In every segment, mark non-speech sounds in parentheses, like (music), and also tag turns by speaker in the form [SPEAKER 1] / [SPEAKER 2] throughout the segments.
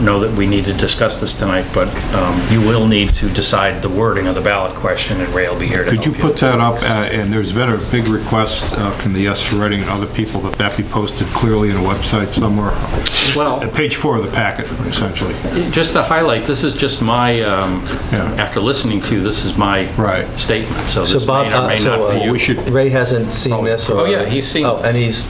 [SPEAKER 1] know that we need to discuss this tonight, but um, you will need to decide the wording of the ballot question, and Ray will be here to help
[SPEAKER 2] Could
[SPEAKER 1] you.
[SPEAKER 2] you put that up, uh, and there's been a big request uh, from the Yes for Reading and other people that that be posted clearly in a website somewhere,
[SPEAKER 1] Well-
[SPEAKER 2] At page four of the packet, essentially.
[SPEAKER 1] Just to highlight, this is just my, um,
[SPEAKER 2] Yeah.
[SPEAKER 1] after listening to you, this is my
[SPEAKER 2] Right.
[SPEAKER 1] statement, so
[SPEAKER 3] So
[SPEAKER 1] this
[SPEAKER 3] Bob,
[SPEAKER 1] may or
[SPEAKER 3] uh,
[SPEAKER 1] may
[SPEAKER 3] so
[SPEAKER 1] not be
[SPEAKER 2] Well,
[SPEAKER 1] you.
[SPEAKER 2] we should-
[SPEAKER 3] uh, Ray hasn't seen this or?
[SPEAKER 1] Oh, yeah, he's seen
[SPEAKER 3] Oh,
[SPEAKER 1] this.
[SPEAKER 3] And he's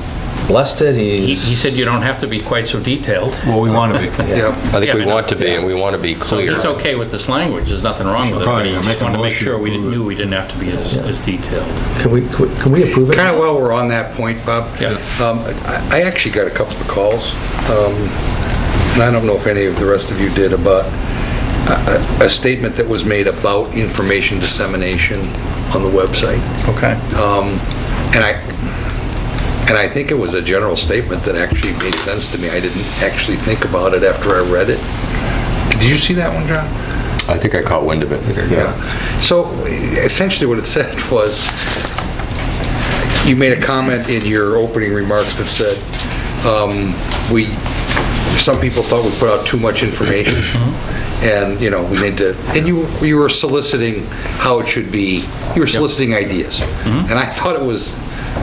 [SPEAKER 3] blessed it,
[SPEAKER 1] He
[SPEAKER 3] he's.
[SPEAKER 1] he said you don't have to be quite so detailed.
[SPEAKER 2] Well, we want to be.
[SPEAKER 1] (laughs) Yeah.
[SPEAKER 4] I think we
[SPEAKER 1] but no-
[SPEAKER 4] want to be, and we want to be
[SPEAKER 1] So
[SPEAKER 4] clear.
[SPEAKER 1] he's okay with this language, there's nothing wrong with it, but
[SPEAKER 2] Right,
[SPEAKER 1] he
[SPEAKER 2] I make
[SPEAKER 1] just
[SPEAKER 2] a
[SPEAKER 1] wanted to make
[SPEAKER 2] motion
[SPEAKER 1] sure we
[SPEAKER 2] to approve
[SPEAKER 1] knew we didn't have to be as as detailed.
[SPEAKER 3] Can we, can we- can we approve it?
[SPEAKER 5] Kind of while we're on that point, Bob.
[SPEAKER 1] Yeah.
[SPEAKER 5] um, I I actually got a couple of calls, um, and I don't know if any of the rest of you did, about a- a a statement that was made about information dissemination on the website.
[SPEAKER 1] Okay.
[SPEAKER 5] Um, And I, and I think it was a general statement that actually made sense to me. I didn't actually think about it after I read it. Did you see that one, John?
[SPEAKER 4] I think I caught wind of it.
[SPEAKER 5] So essentially what it said (laughs) was, you made a comment in your opening remarks that said, um, we, some people thought we put out too much information, and, you know, we need to, and you, you were soliciting how it should be, you were soliciting ideas. And I thought it was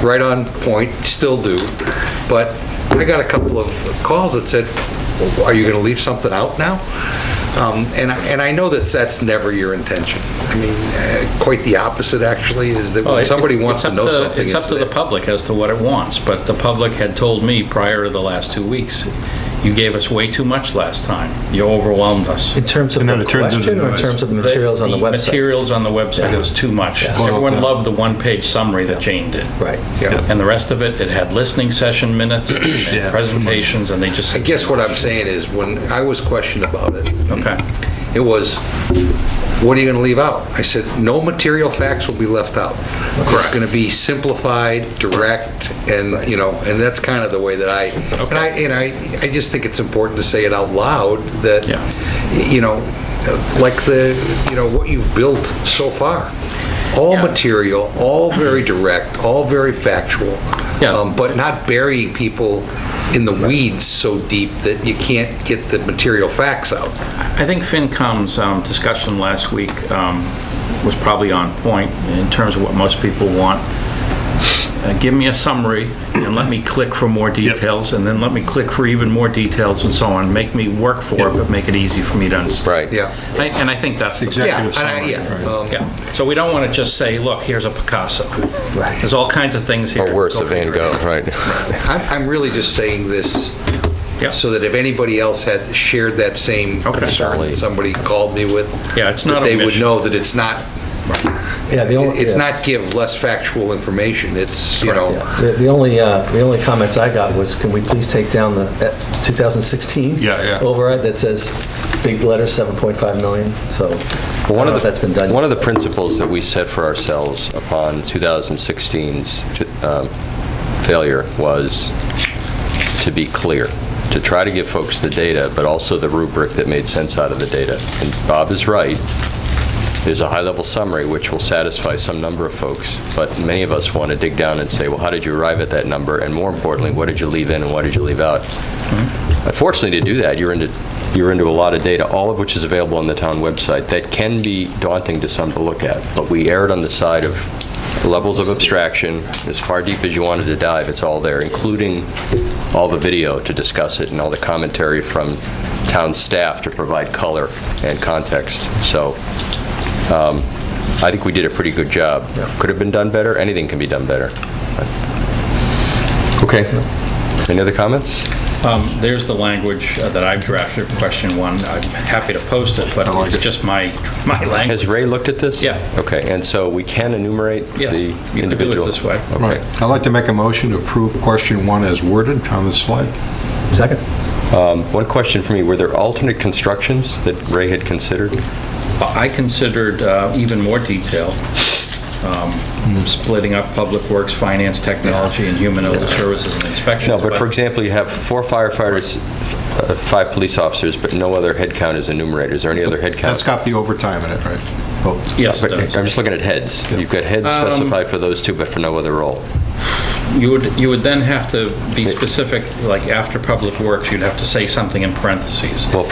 [SPEAKER 5] right on point, still do, but I got a couple of calls that said, are you going to leave something out now? Um, And, I- and I know that that's never your intention. I mean, uh, quite the opposite, actually, is that
[SPEAKER 1] Well,
[SPEAKER 5] when
[SPEAKER 1] it's-
[SPEAKER 5] somebody
[SPEAKER 1] it's-
[SPEAKER 5] wants
[SPEAKER 1] it's
[SPEAKER 5] to
[SPEAKER 1] up
[SPEAKER 5] know something.
[SPEAKER 1] It's up to the public as to what it wants, but the public had told me prior to the last two weeks, you gave us way too much last time. You overwhelmed us.
[SPEAKER 3] In terms of
[SPEAKER 2] And then
[SPEAKER 3] the
[SPEAKER 2] it turns into
[SPEAKER 3] question or in
[SPEAKER 2] noise.
[SPEAKER 3] terms of the materials on the website?
[SPEAKER 1] materials on the website was too much. Everyone loved the one-page summary that Jane did.
[SPEAKER 3] Right.
[SPEAKER 5] Yeah.
[SPEAKER 1] And the rest of it, it had listening session minutes and presentations, and they just.
[SPEAKER 5] I guess what I'm saying is, when I was questioned about it,
[SPEAKER 1] Okay.
[SPEAKER 5] it was, what are you going to leave out? I said, no material facts will be left out. It's going to be simplified, direct, and, you know, and that's kind of the way that I, and I, and I, I just think it's important to say it out loud, that,
[SPEAKER 1] Yeah.
[SPEAKER 5] you know, like the, you know, what you've built so far. All
[SPEAKER 1] Yeah.
[SPEAKER 5] material, all very direct, all very factual.
[SPEAKER 1] Yeah.
[SPEAKER 5] Um, But not burying people in the weeds so deep that you can't get the material facts out.
[SPEAKER 1] I think FinCom's um, discussion last week um, was probably on point in terms of what most people want. Uh, Give me a summary and let me click for more details, and then let me click for even more details and so on. Make me work for it, but make it easy for me to understand.
[SPEAKER 4] Right.
[SPEAKER 5] Yeah.
[SPEAKER 1] I- And I think that's the...
[SPEAKER 5] Yeah,
[SPEAKER 2] Executive
[SPEAKER 5] and I-
[SPEAKER 2] summary,
[SPEAKER 5] yeah,
[SPEAKER 2] right.
[SPEAKER 5] um,
[SPEAKER 1] Yeah. So we don't want to just say, look, here's a Picasso. There's all kinds of things here.
[SPEAKER 4] Or worse,
[SPEAKER 1] Go
[SPEAKER 4] a Van
[SPEAKER 1] figure it
[SPEAKER 4] Gogh,
[SPEAKER 1] out.
[SPEAKER 4] right.
[SPEAKER 5] I'm I'm really just saying this
[SPEAKER 1] Yeah.
[SPEAKER 5] so that if anybody else had shared that same
[SPEAKER 1] Okay.
[SPEAKER 5] concern that somebody called me with,
[SPEAKER 1] Yeah, it's
[SPEAKER 5] that
[SPEAKER 1] not a
[SPEAKER 5] they would
[SPEAKER 1] mission.
[SPEAKER 5] know that it's not,
[SPEAKER 3] Yeah, the only.
[SPEAKER 5] it's
[SPEAKER 3] yeah.
[SPEAKER 5] not give less factual information, it's, you know,
[SPEAKER 3] The the only, uh, the only comments I got was, can we please take down the uh, 2016?
[SPEAKER 2] Yeah, yeah.
[SPEAKER 3] Override that says, big letter, 7.5 million, so, I don't
[SPEAKER 4] One
[SPEAKER 3] know
[SPEAKER 4] of
[SPEAKER 3] if
[SPEAKER 4] the-
[SPEAKER 3] that's been done.
[SPEAKER 4] One of the principles that we set for ourselves upon 2016's um, failure was to be clear, to try to give folks the data, but also the rubric that made sense out of the data. And Bob is right, there's a high-level summary which will satisfy some number of folks, but many of us want to dig down and say, well, how did you arrive at that number? And more importantly, what did you leave in and what did you leave out? Unfortunately, to do that, you're into, you're into a lot of data, all of which is available on the town website, that can be daunting to some to look at, but we erred on the side of levels of abstraction, as far deep as you wanted to dive, it's all there, including all the video to discuss it and all the commentary from town staff to provide color and context. So um, I think we did a pretty good job. Could have been done better, anything can be done better. Okay. Any other comments?
[SPEAKER 1] Um, There's the language uh, that I've drafted for question one. I'm happy to post it, but it's just my, my language.
[SPEAKER 4] Has Ray looked at this?
[SPEAKER 1] Yeah.
[SPEAKER 4] Okay, and so we can enumerate
[SPEAKER 1] Yes,
[SPEAKER 4] the
[SPEAKER 1] you can do it
[SPEAKER 4] individual?
[SPEAKER 1] this way.
[SPEAKER 2] Right.
[SPEAKER 4] Okay.
[SPEAKER 2] I'd like to make a motion to approve question one as worded on this slide.
[SPEAKER 3] Second?
[SPEAKER 4] Um, One question for me, were there alternate constructions that Ray had considered?
[SPEAKER 1] I considered uh, even more detail, um, splitting up Public Works, Finance, Technology, and Human Elder Services and Inspections.
[SPEAKER 4] No, but for example, you have four firefighters, uh, five police officers, but no other headcount is enumerated. Is there any other headcount?
[SPEAKER 2] That's got the overtime in it, right? Oh,
[SPEAKER 1] Yes, it
[SPEAKER 4] But
[SPEAKER 1] does.
[SPEAKER 4] I'm just looking at heads. You've got heads
[SPEAKER 1] Um,
[SPEAKER 4] specified for those two, but for no other role.
[SPEAKER 1] You would, you would then have to be specific, like after Public Works, you'd have to say something in parentheses.
[SPEAKER 4] Well,